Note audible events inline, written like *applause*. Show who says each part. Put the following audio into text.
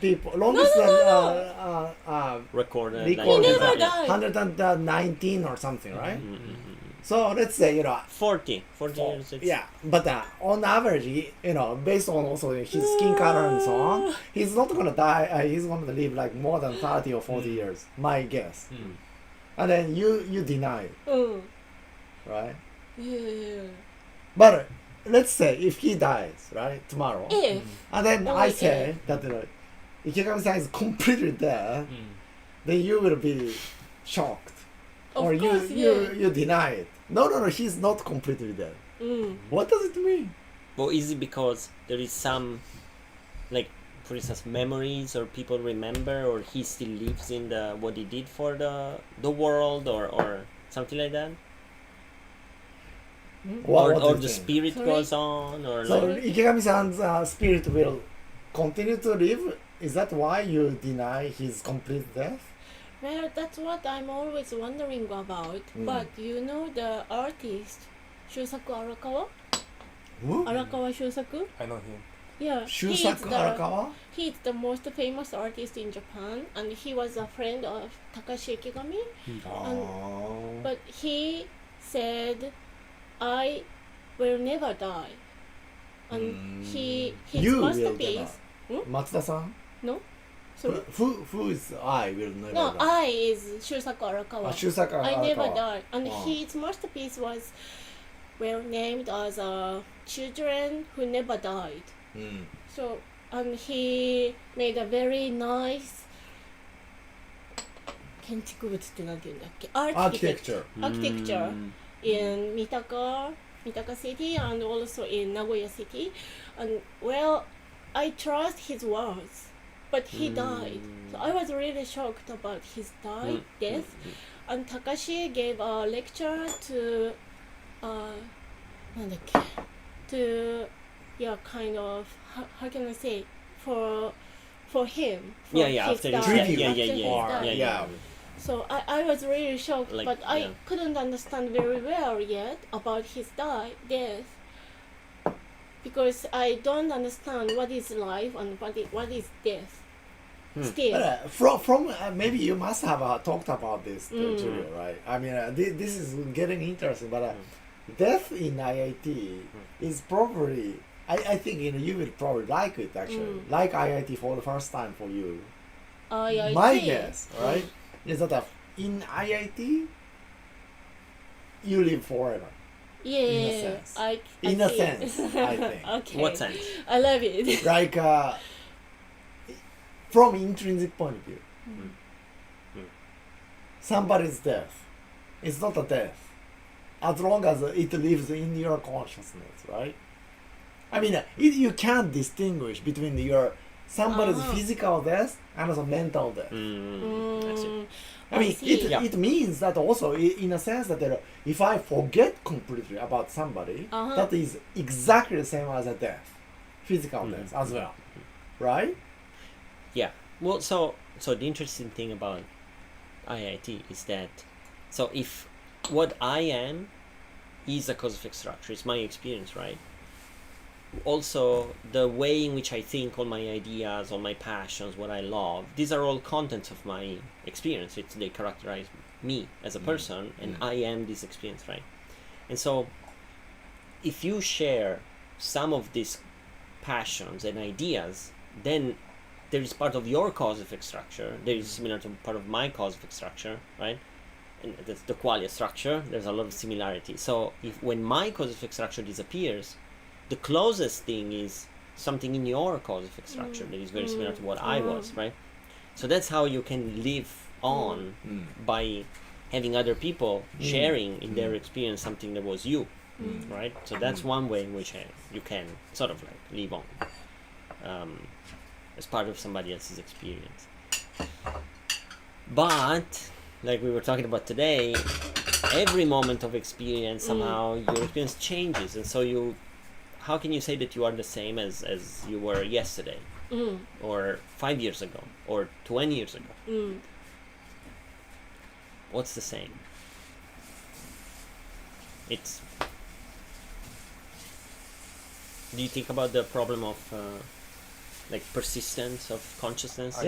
Speaker 1: people, longest
Speaker 2: no, no,
Speaker 1: uh, uh, uh,
Speaker 3: recorded.
Speaker 1: record
Speaker 2: He
Speaker 1: is like
Speaker 2: never died.
Speaker 1: 119 or something, right?
Speaker 3: Mm,
Speaker 1: So let's say, you know,
Speaker 3: 40, 40 years. it's-
Speaker 1: yeah, but uh, on average, he- you know, based on also his skin color and so on, he's not gonna die. Uh, he's gonna live like more than 30 or 40 years, my guess.
Speaker 4: Mm.
Speaker 1: And then you you deny, it,
Speaker 2: うん。
Speaker 1: right?
Speaker 2: いやいやいや。
Speaker 1: But let's say if he dies, right, tomorrow,
Speaker 2: ええ。
Speaker 1: and then
Speaker 2: Oh,
Speaker 1: I
Speaker 2: yeah.
Speaker 1: say that uh, Ikegami-san is completely
Speaker 4: Mm.
Speaker 1: dead, then you will be shocked.
Speaker 2: Of
Speaker 1: or you,
Speaker 2: course,
Speaker 1: you,
Speaker 2: yeah.
Speaker 1: you deny it. No, no, no, he's not completely dead.
Speaker 2: うん。
Speaker 1: What does it mean?
Speaker 3: Well, is it because there is some, like, for instance, memories or people remember or he still lives in the what he did for the the world or or something like that?
Speaker 1: What,
Speaker 3: or
Speaker 1: what do
Speaker 3: or
Speaker 1: you
Speaker 3: the
Speaker 1: think?
Speaker 3: spirit
Speaker 2: Sorry?
Speaker 3: goes on or
Speaker 1: So
Speaker 3: like
Speaker 1: Ikegami-san's uh, spirit will continue to live. Is that why you deny his complete death?
Speaker 2: Well, that's what I'm always wondering about.
Speaker 1: Mm.
Speaker 2: But you know the artist, Shusaku Arakawa?
Speaker 1: Who?
Speaker 2: Arakawa Shusaku?
Speaker 4: I know him.
Speaker 2: Yeah. he is
Speaker 1: Mm. Shusaku
Speaker 2: the-
Speaker 1: Arakawa?
Speaker 2: He is the most famous artist in Japan, and he was a friend of Takashi Ikigami.
Speaker 1: Mm. Oh.
Speaker 2: But he said, "I will never die," and he his
Speaker 1: Hmm. Mm.
Speaker 2: Hmm?
Speaker 1: You will
Speaker 2: masterpice.
Speaker 1: Matsuda-san?
Speaker 2: No,
Speaker 1: Who,
Speaker 2: sorry.
Speaker 1: who, who is I will never
Speaker 2: No,
Speaker 1: die?
Speaker 2: I is Shusaku Arakawa.
Speaker 1: Ah, Shusaku
Speaker 2: I never
Speaker 1: Arakawa.
Speaker 2: die, and
Speaker 1: Oh.
Speaker 2: his masterpiece was well named as uh, "Children Who Never Died."
Speaker 1: Mm.
Speaker 2: So, and he made a very nice. 建築物ってなんて言うんだっけ
Speaker 1: Architecture.
Speaker 2: architecture
Speaker 3: Mm.
Speaker 2: in Mitaka, Mitaka City, and also in Nagoya City. And well, I trust his words, but he
Speaker 3: Hmm.
Speaker 2: died. So I was really shocked about his die,
Speaker 3: Hmm.
Speaker 2: death. And Takashi gave a lecture to, uh, なんだっけ? to, yeah, kind of, how, how can I say, for, for him. For
Speaker 3: yeah yeah
Speaker 2: his
Speaker 3: after
Speaker 2: death,
Speaker 3: his
Speaker 1: died.
Speaker 3: death yeah
Speaker 2: after
Speaker 3: yeah yeah
Speaker 2: his
Speaker 3: yeah,
Speaker 2: death.
Speaker 3: yeah,
Speaker 1: Yeah.
Speaker 2: So I, I was really shocked,
Speaker 3: Like,
Speaker 2: but I
Speaker 3: yeah.
Speaker 2: couldn't understand very well yet about his die death because I don't understand what is life and what is, what is death.
Speaker 3: Hmm.
Speaker 2: Still,
Speaker 1: But, uh, from from uh, maybe you must have uh, talked about this, uh,
Speaker 2: Mm.
Speaker 1: Julio, right? I mean, uh, thi- this is getting interesting, but uh,
Speaker 2: Mm.
Speaker 1: death in IIT is probably. I, I think you know you will probably like it actually
Speaker 2: Mm.
Speaker 1: like IIT for the first time for you.
Speaker 2: I, Mm.
Speaker 1: uh,
Speaker 2: I
Speaker 1: My
Speaker 2: see.
Speaker 1: guess, right, is that uh, in IIT you live forever.
Speaker 2: Yeah,
Speaker 1: sense.
Speaker 2: I, I
Speaker 1: In a
Speaker 2: see.
Speaker 1: sense,
Speaker 2: *laughs*
Speaker 1: I think.
Speaker 2: okay.
Speaker 3: what sense
Speaker 2: I love it.
Speaker 1: like uh, from intrinsic point of view
Speaker 3: Mm.
Speaker 1: somebody's death it's not a death as long as it lives in your consciousness right i mean uh, it, you can't distinguish between your somebody's
Speaker 2: Ah.
Speaker 1: physical death and also mental death
Speaker 3: *laughs* mm. I see.
Speaker 2: Mm,
Speaker 1: I mean,
Speaker 2: see.
Speaker 1: it,
Speaker 3: Yeah.
Speaker 1: it means that also, i- in a sense, that uh, if I forget completely about somebody,
Speaker 2: Uh-huh.
Speaker 1: that is exactly the same as a death, physical death as well, right?
Speaker 3: Yeah. Well, so so the interesting thing about IIT is that so if what I am is a cosmic structure, it's my experience, right? Also, the way in which I think, all my ideas, all my passions, what I love, these are all contents of my experience. It's they characterize me as a person, and I am this experience, right? And so, if you share some of these passions and ideas, then there is part of your causific structure. There is similar to part of my causific structure, right? And that's the qualia structure. There's a lot of similarity. So if when my causific structure disappears, the closest thing is something in your causific structure that is very similar to what I was, right? So that's how you can live on
Speaker 1: Mm.
Speaker 3: by having other people sharing in their experience something that was you, right? So that's one way in which uh, you can sort of like live on um, as part of somebody else's experience. But like we were talking about today, every moment of experience somehow your experience changes, and so you, how can you say that you are the same as as you were yesterday,
Speaker 2: mm,
Speaker 3: or five years ago, or twenty years ago?
Speaker 2: mm.
Speaker 3: What's the same? It's. Do you think about the problem of uh, like persistence of consciousness